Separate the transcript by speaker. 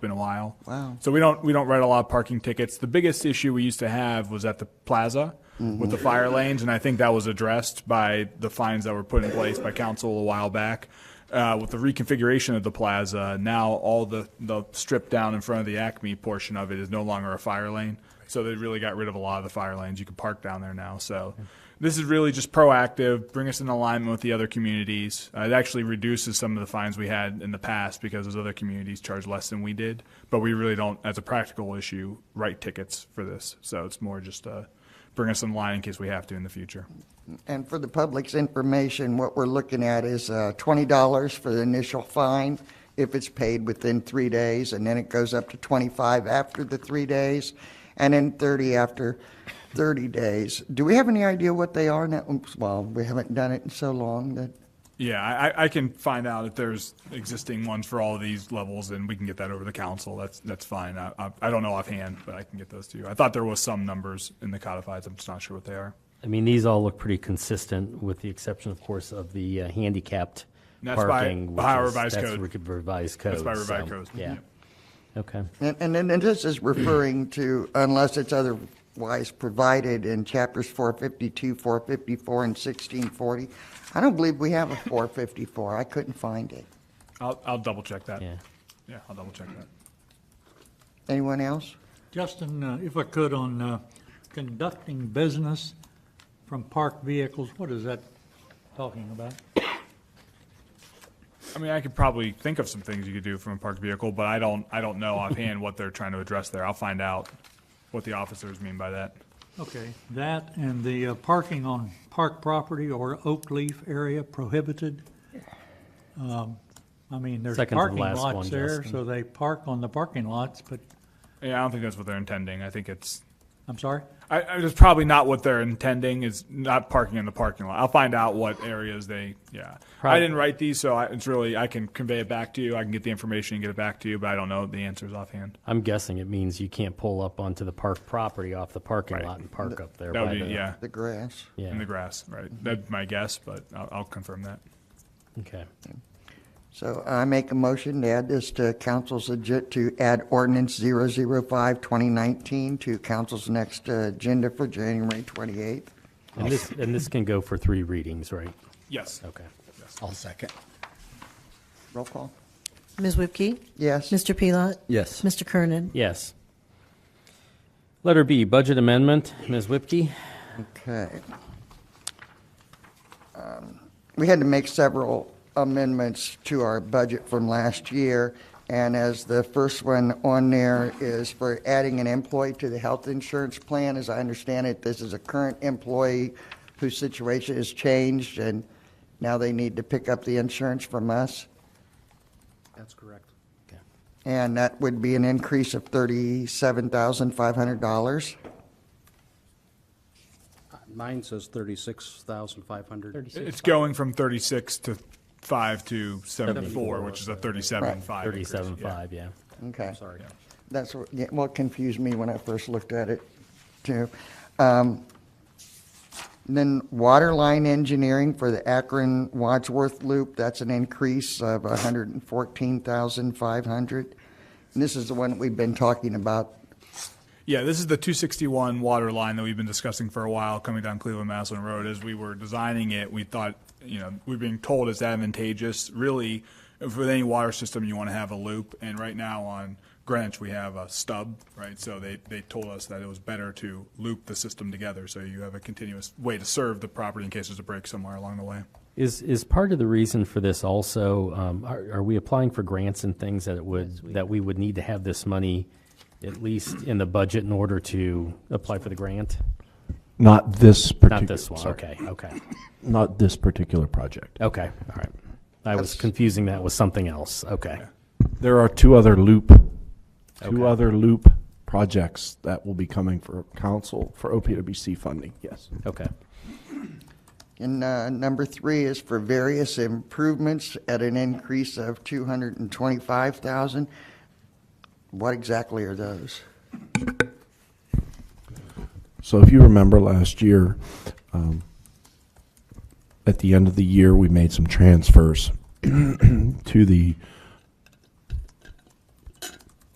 Speaker 1: been a while.
Speaker 2: Wow.
Speaker 1: So we don't we don't write a lot of parking tickets. The biggest issue we used to have was at the plaza with the fire lanes, and I think that was addressed by the fines that were put in place by council a while back. Uh, with the reconfiguration of the plaza, now all the the strip down in front of the Acme portion of it is no longer a fire lane. So they really got rid of a lot of the fire lanes. You can park down there now. So this is really just proactive, bring us in alignment with the other communities. Uh, it actually reduces some of the fines we had in the past because those other communities charge less than we did. But we really don't, as a practical issue, write tickets for this. So it's more just uh, bring us in line in case we have to in the future.
Speaker 2: And for the public's information, what we're looking at is uh, $20 for the initial fine if it's paid within three days, and then it goes up to 25 after the three days, and then 30 after 30 days. Do we have any idea what they are now? Oops, Well, we haven't done it in so long that,
Speaker 1: Yeah, I, I- I can find out if there's existing ones for all of these levels, and we can get that over the council. That's that's fine. I, I, I don't know offhand, but I can get those to you. I thought there was some numbers in the codifieds. I'm just not sure what they are.
Speaker 3: I mean, these all look pretty consistent, with the exception, of course, of the uh, handicapped
Speaker 1: And that's by-
Speaker 3: parking. which
Speaker 1: by our
Speaker 3: is-
Speaker 1: revised
Speaker 3: that's
Speaker 1: code.
Speaker 3: re- Revised code.
Speaker 1: That's by
Speaker 3: so,
Speaker 1: revised code.
Speaker 3: Yeah. Okay.
Speaker 2: and- and then and this is referring to unless it's otherwise provided in chapters 452, 454, and 1640. I don't believe we have a 454. I couldn't find it.
Speaker 1: I'll, I'll double check that.
Speaker 3: Yeah.
Speaker 1: Yeah, I'll double check that.
Speaker 2: Anyone else?
Speaker 4: Justin, uh, if I could, on uh, conducting business from parked vehicles, what is that talking about?
Speaker 1: I mean, I could probably think of some things you could do from a parked vehicle, but I don't, I don't know offhand what they're trying to address there. I'll find out what the officers mean by that.
Speaker 4: Okay, that and the uh, parking on park property or oak leaf area prohibited. Um, I mean, there's
Speaker 3: Second to the
Speaker 4: parking
Speaker 3: last one,
Speaker 4: lots there,
Speaker 3: Justin.
Speaker 4: so they park on the parking lots, but,
Speaker 1: Yeah, I don't think that's what they're intending. I think it's,
Speaker 4: I'm sorry?
Speaker 1: I, I, it's probably not what they're intending is not parking in the parking lot. I'll find out what areas they, yeah. I
Speaker 3: Probably.
Speaker 1: didn't write these, so I, it's really, I can convey it back to you. I can get the information and get it back to you, but I don't know the answers offhand.
Speaker 3: I'm guessing it means you can't pull up onto the park property off the parking lot and park up there.
Speaker 1: That
Speaker 3: by
Speaker 1: would be,
Speaker 3: the-
Speaker 1: yeah,
Speaker 2: The grass.
Speaker 1: in the
Speaker 3: Yeah,
Speaker 1: grass, right? That's my guess, but I'll, I'll confirm that.
Speaker 3: okay.
Speaker 2: So I make a motion to add this to council's agenda, to add ordinance 005, 2019 to council's next uh, agenda for January 28th.
Speaker 3: And this, and this can go for three readings, right?
Speaker 1: Yes.
Speaker 3: Okay.
Speaker 5: I'll second.
Speaker 2: Roll call.
Speaker 6: Ms. Whipke?
Speaker 2: Yes.
Speaker 6: Mr. Pelot?
Speaker 5: Yes.
Speaker 6: Mr. Kernan?
Speaker 3: Yes. Letter B, budget amendment. Ms. Whipke?
Speaker 2: Okay. Um, We had to make several amendments to our budget from last year, and as the first one on there is for adding an employee to the health insurance plan, as I understand it, this is a current employee whose situation has changed, and now they need to pick up the insurance from us,
Speaker 5: That's correct.
Speaker 2: and that would be an increase of $37,500.
Speaker 5: Mine says thirty-six thousand five hundred.
Speaker 1: It's going from 36 to 5 to 74, which is a 37.5. increase, yeah.
Speaker 3: Thirty-seven five, yeah.
Speaker 2: Okay.
Speaker 5: Sorry.
Speaker 2: That's what, yeah, what confused me when I first looked at it, too. Um, Then water line engineering for the Akron Wadsworth Loop, that's an increase of hundred and fourteen thousand five hundred. And this is the one that we've been talking about.
Speaker 1: Yeah, this is the 261 water line that we've been discussing for a while coming down Cleveland Maslin Road. As we were designing it, we thought, you know, we we're being told it's advantageous. Really, if with any water system, you want to have a loop. And right now on Greenwich, we have a stub, right? So they, they told us that it was better to loop the system together so you have a continuous way to serve the property in case there's a break somewhere along the way.
Speaker 3: Is, is part of the reason for this also, um, are, are we applying for grants and things that it would, that we would need to have this money at least in the budget in order to apply for the grant?
Speaker 7: Not this particular.
Speaker 3: Not this one,
Speaker 7: sorry.
Speaker 3: okay, okay,
Speaker 7: Not this particular project.
Speaker 3: okay, all right. I was confusing that with something else, okay.
Speaker 7: There are two other loop,
Speaker 3: Okay.
Speaker 7: two other loop projects that will be coming for council for OPWC funding, yes.
Speaker 3: Okay.
Speaker 2: And uh, number three is for various improvements at an increase of two hundred and twenty-five thousand. What exactly are those?
Speaker 7: So if you remember last year, um, at the end of the year, we made some transfers to the